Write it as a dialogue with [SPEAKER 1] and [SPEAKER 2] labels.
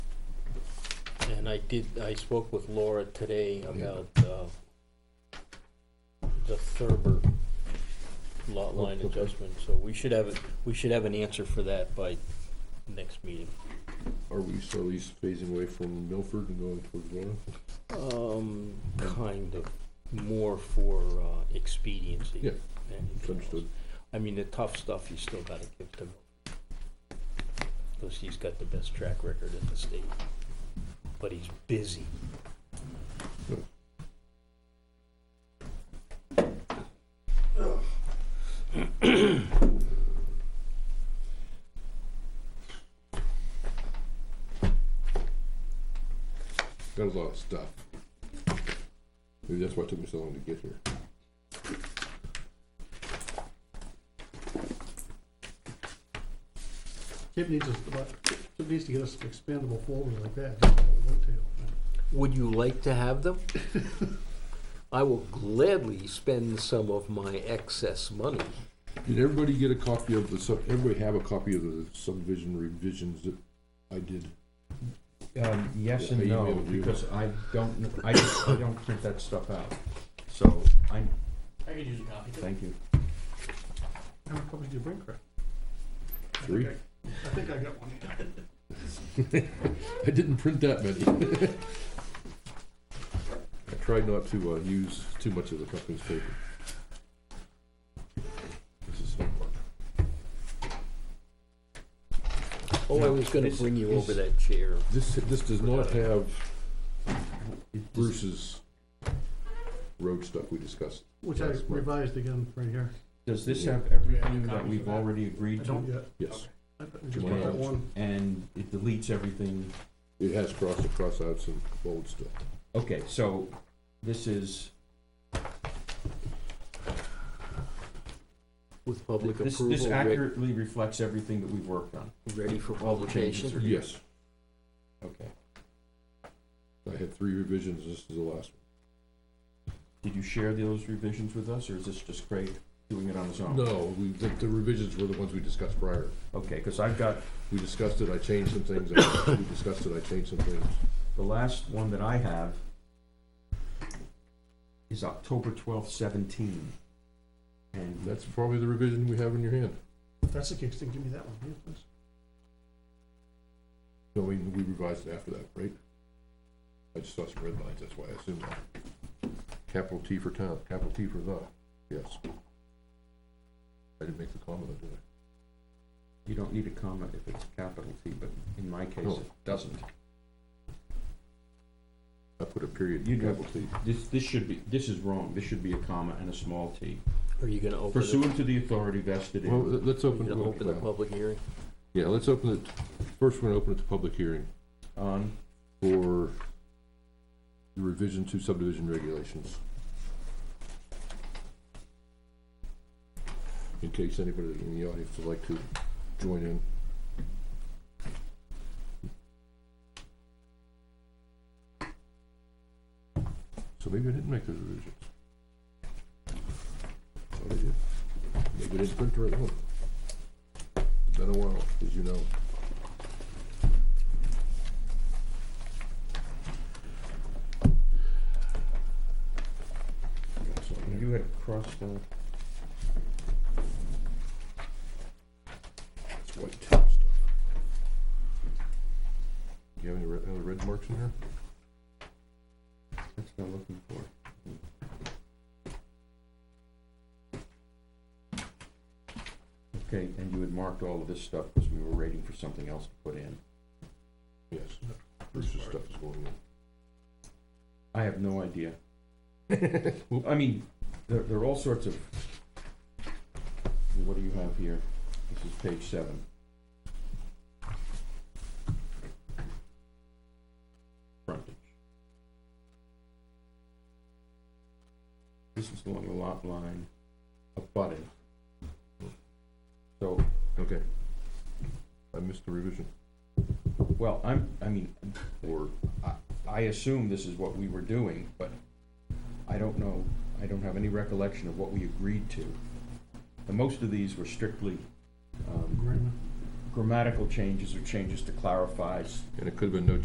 [SPEAKER 1] And I did, I spoke with Laura today about uh, the Thurber lot line
[SPEAKER 2] Oh, okay.
[SPEAKER 1] adjustment, so we should have, it- we should have an answer for that by next meeting.
[SPEAKER 2] Are we so at least phasing away from Milford and going towards Rona?
[SPEAKER 1] Um, kind of, more for uh, expediency.
[SPEAKER 2] Yeah,
[SPEAKER 1] than anything
[SPEAKER 2] it's understood.
[SPEAKER 1] else. I mean, the tough stuff you still gotta give to, because he's got the best track record in the state, but he's busy.
[SPEAKER 2] Got a lot of stuff. Maybe that's why it took me so long to get here.
[SPEAKER 3] Kip needs us, Kip needs to get us an expandable folder like that, just what we went to.
[SPEAKER 4] Would you like to have them? I will gladly spend some of my excess money.
[SPEAKER 2] Did everybody get a copy of the sub, everybody have a copy of the subdivision revisions that I did?
[SPEAKER 5] Um, yes
[SPEAKER 2] Yeah,
[SPEAKER 5] and
[SPEAKER 2] you
[SPEAKER 5] no,
[SPEAKER 2] will, you will.
[SPEAKER 5] because I don't, kn- I, just- I don't print that stuff out, so I'm,
[SPEAKER 1] I could use a copy.
[SPEAKER 5] thank you.
[SPEAKER 3] How many copies do you bring, Craig?
[SPEAKER 2] Three?
[SPEAKER 3] I think I got one.
[SPEAKER 2] I didn't print that many. I tried not to, uh, use too much of the company's paper. This is homework.
[SPEAKER 4] Oh, I was gonna
[SPEAKER 5] Is-
[SPEAKER 4] bring you
[SPEAKER 5] is-
[SPEAKER 4] over that chair.
[SPEAKER 2] This, this does not have Bruce's road stuff we discussed.
[SPEAKER 3] Which I
[SPEAKER 2] Yes, well.
[SPEAKER 3] revised again right here.
[SPEAKER 5] Does this
[SPEAKER 2] Yeah.
[SPEAKER 5] have
[SPEAKER 3] Do you
[SPEAKER 5] everything
[SPEAKER 3] have
[SPEAKER 5] that
[SPEAKER 3] copies of
[SPEAKER 5] we've
[SPEAKER 3] that?
[SPEAKER 5] already agreed
[SPEAKER 3] I don't
[SPEAKER 5] to?
[SPEAKER 3] yet.
[SPEAKER 2] Yes,
[SPEAKER 3] I thought we just got that
[SPEAKER 2] Tomorrow.
[SPEAKER 3] one.
[SPEAKER 5] And it deletes everything,
[SPEAKER 2] it has cross and cross outs and bold stuff.
[SPEAKER 5] okay, so this is,
[SPEAKER 4] With public
[SPEAKER 5] this, this
[SPEAKER 4] approval, re-
[SPEAKER 5] accurately reflects everything that we've worked on.
[SPEAKER 4] ready for
[SPEAKER 5] all the changes
[SPEAKER 4] publication.
[SPEAKER 5] are-
[SPEAKER 2] Yes,
[SPEAKER 5] Okay.
[SPEAKER 2] I had three revisions, this is the last
[SPEAKER 5] Did you share those revisions with us, or is this just Craig doing it on his
[SPEAKER 2] one.
[SPEAKER 5] own?
[SPEAKER 2] No, we, the the revisions were the ones we discussed prior.
[SPEAKER 5] Okay, because I've got,
[SPEAKER 2] We discussed it, I changed some things, I- we discussed it, I changed some things.
[SPEAKER 5] the last one that I have is October twelfth seventeen. And
[SPEAKER 2] That's probably the revision we have in your hand.
[SPEAKER 3] If that's the case, then give me that one, yeah, please.
[SPEAKER 2] No, we, we revised it after that, right? I just saw some red lines, that's why I assumed that. Capital T for town, capital T for the, yes. I didn't make the comment, did I?
[SPEAKER 5] You don't need a comma if it's capital T, but in my case,
[SPEAKER 2] No,
[SPEAKER 5] it doesn't.
[SPEAKER 2] I put a period,
[SPEAKER 5] You do.
[SPEAKER 2] capital T.
[SPEAKER 5] This, this should be, this is wrong, this should be a comma and a small t.
[SPEAKER 4] Are you gonna open it?
[SPEAKER 5] Pursuant to the authority vested
[SPEAKER 2] Well,
[SPEAKER 5] in,
[SPEAKER 2] let- let's
[SPEAKER 4] You
[SPEAKER 2] open,
[SPEAKER 4] gonna open the
[SPEAKER 2] well,
[SPEAKER 4] public hearing?
[SPEAKER 2] yeah, let's open it, first we're gonna open it to public hearing
[SPEAKER 5] on,
[SPEAKER 2] for the revision to subdivision regulations. In case anybody in the audience would like to join in. So maybe I didn't make those revisions. Thought I did. Maybe I didn't print the right one. Been a while, as you know. Got something here.
[SPEAKER 5] you had crossed out,
[SPEAKER 2] It's white tip stuff. Do you have any red, other red marks in here?
[SPEAKER 5] that's what I'm looking for. Okay, and you had marked all of this stuff because we were waiting for something else to put in.
[SPEAKER 2] Yes. Bruce's stuff is going
[SPEAKER 5] I have no idea.
[SPEAKER 2] in.
[SPEAKER 5] Well, I mean, there, there are all sorts of, what do you have here? This is page seven. Frontage. This is along the lot line of budding. So,
[SPEAKER 2] Okay. I missed the revision.
[SPEAKER 5] well, I'm, I mean,
[SPEAKER 2] Or,
[SPEAKER 5] I assume this is what we were doing, but I don't know, I don't have any recollection of what we agreed to. And most of these were strictly um,
[SPEAKER 3] Agreement.
[SPEAKER 5] grammatical changes or changes to clarify s-
[SPEAKER 2] and it could have been no